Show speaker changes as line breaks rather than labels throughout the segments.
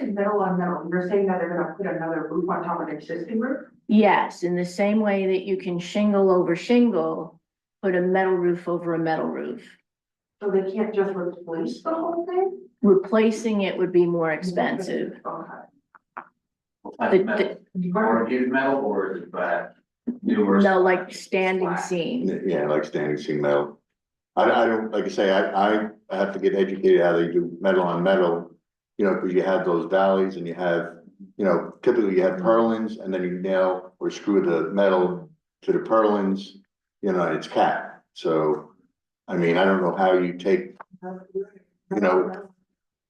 metal on metal, you're saying that they're gonna put another roof on top of the existing roof?
Yes, in the same way that you can shingle over shingle, put a metal roof over a metal roof.
So they can't just replace the whole thing?
Replacing it would be more expensive.
Okay.
What kind
The-
of metal?
Or-
Or is metal or is it bad? Newer.
No, like standing
Flat.
seam.
Yeah, like standing seam metal. I, I don't, like I say, I, I have to get educated how they do metal on metal. You know, cause you have those valleys and you have, you know, typically you have purlins and then you nail or screw the metal to the purlins. You know, and it's capped, so, I mean, I don't know how you take, You know-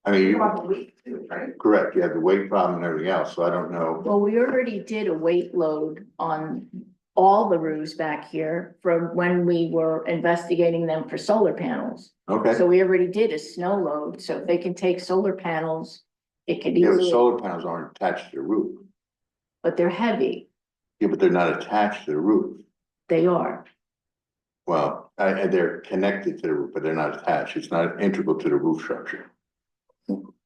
I mean,
Think
you-
About the leak too, right?
correct, you have the weight problem and everything else, so I don't know.
Well, we already did a weight load on all the roofs back here from when we were investigating them for solar panels.
Okay,
So we already did a snow load, so if they can take solar panels, it could
yeah, but
easily,
solar panels aren't attached to the roof.
but they're heavy.
Yeah, but they're not attached to the roof.
They are.
Well, I, I- they're connected to the roof, but they're not attached. It's not integral to the roof structure.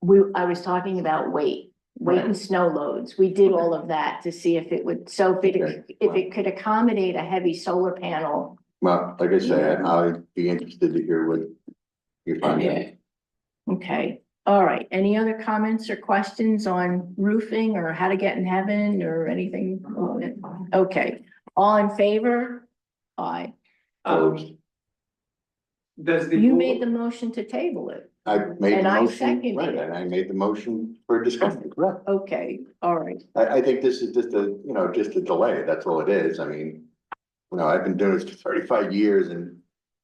We, I was talking about weight, weight
Right.
and snow loads. We did all of that to see if it would, so if it,
Okay.
if it could accommodate a heavy solar panel.
Well, like I say,
Mm-hmm.
I'd be interested to hear what you find out.
Okay, all right. Any other comments or questions on roofing or how to get in heaven or anything? Okay, all in favor? Aye.
Opposed?
Does the.
You
board-
made the motion to table it.
I made the
And I
motion,
seconded
right,
it.
and I made the motion for discussion, correct?
Okay, all right.
I, I think this is just a, you know, just a delay. That's all it is. I mean, you know, I've been doing this for thirty-five years and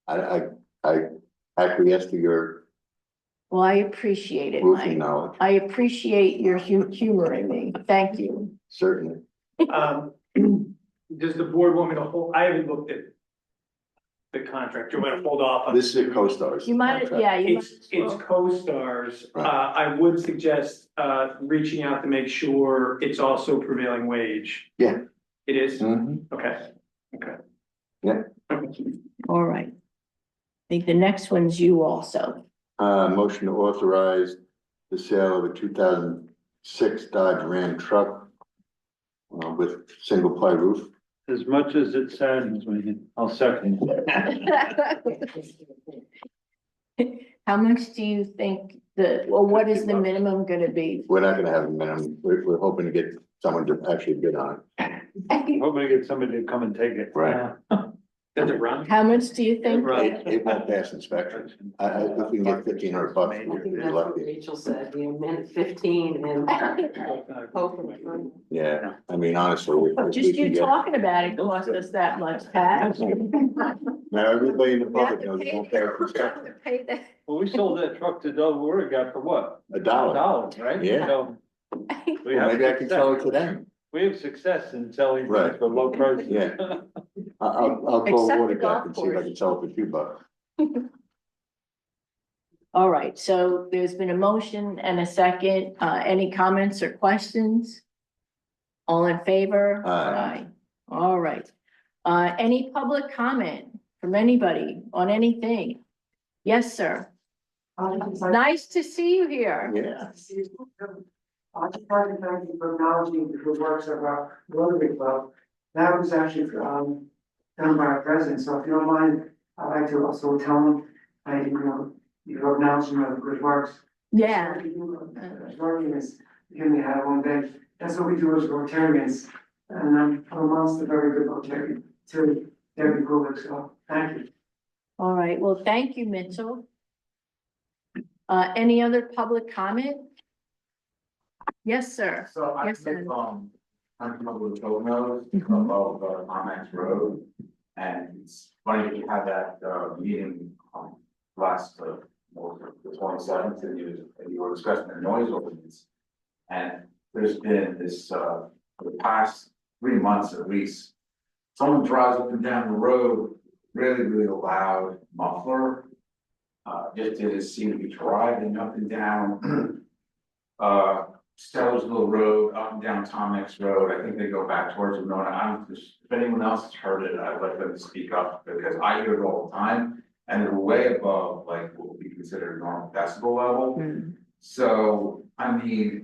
I, I, I acquiesce to your
Well, I appreciate it, Mike.
roofing knowledge,
I appreciate your hu- humoring me. Thank you.
certainly.
Um, does the board want me to hold, I haven't looked at. The contract, do you want to hold off on?
This is a co-star's.
You might,
contract.
yeah, you might.
It's,
as
it's
well.
co-stars, uh,
Right.
I would suggest, uh, reaching out to make sure it's also prevailing wage.
Yeah.
It is,
Mhm.
okay, okay.
Yeah.
All right. I think the next one's you also.
Uh, motion to authorize the sale of a two thousand six Dodge Ram truck uh, with single ply roof.
As much as it saddens me, I'll second.
How much do you think the, well, what is the minimum gonna be?
We're not gonna have a minimum, we're, we're hoping to get someone to actually bid on it.
Hoping to get somebody to come and take it.
Right.
Does it run?
How much do you think?
It, it won't pass inspection. I, I, if we can get fifteen hundred bucks, we're we're lucky.
Rachel said, you meant fifteen
Yeah, I mean, honestly. we- if we
Oh, Just
can
you
get-
talking about it cost us that much, Pat.
Now, everybody in the
We have
public
to
knows it
pay-
won't pass inspection,
to pay that.
Well, we sold that truck to Del got for what?
a
A
dollar.
dollar, right?
Yeah.
So we
Well,
have
Maybe I can sell it
success.
to them.
We have success in selling
Right.
things for low prices.
Yeah. I, I'll, I'll call
Except the
Water Gap
golf
and see if I
course.
can sell it for two bucks.
All right, so there's been a motion and a second. Uh, any comments or questions? All in favor?
Aye.
Aye. All right. Uh, any public comment from anybody on anything? Yes, sir. Nice to see you here.
Yeah.
I just wanted to thank you for acknowledging the good works of our Rotary Club. That was actually, um, done by our president, so if you don't mind, I'd like to also tell him, I, you know, you're acknowledging my good works.
Yeah.
Rotarians, you only have one day, that's what we do as Rotarians, and I'm amongst the very good Rotarian, too, very good, so, thank you.
All right, well, thank you, Mitchell. Uh, any other public comment? Yes, sir.
So I
Yes,
think,
and-
um, I'm from over the Gold Nose, above the Momax Road. And it's funny that you had that, uh, meeting, um, last, uh, what was it, the twenty seventh, and you, and you were discussing the noise ordinance. And there's been this, uh, for the past three months at least. Someone drives up and down the road, really, really loud muffler. Uh, just didn't seem to be driving up and down. Uh, Sellersville Road, up and down Tomex Road, I think they go back towards Winona, I'm, just- if anyone else has heard it, I'd like them to speak up, because I hear it all the time. And they're way above like what would be considered normal decibel level,
Hmm.
so, I mean,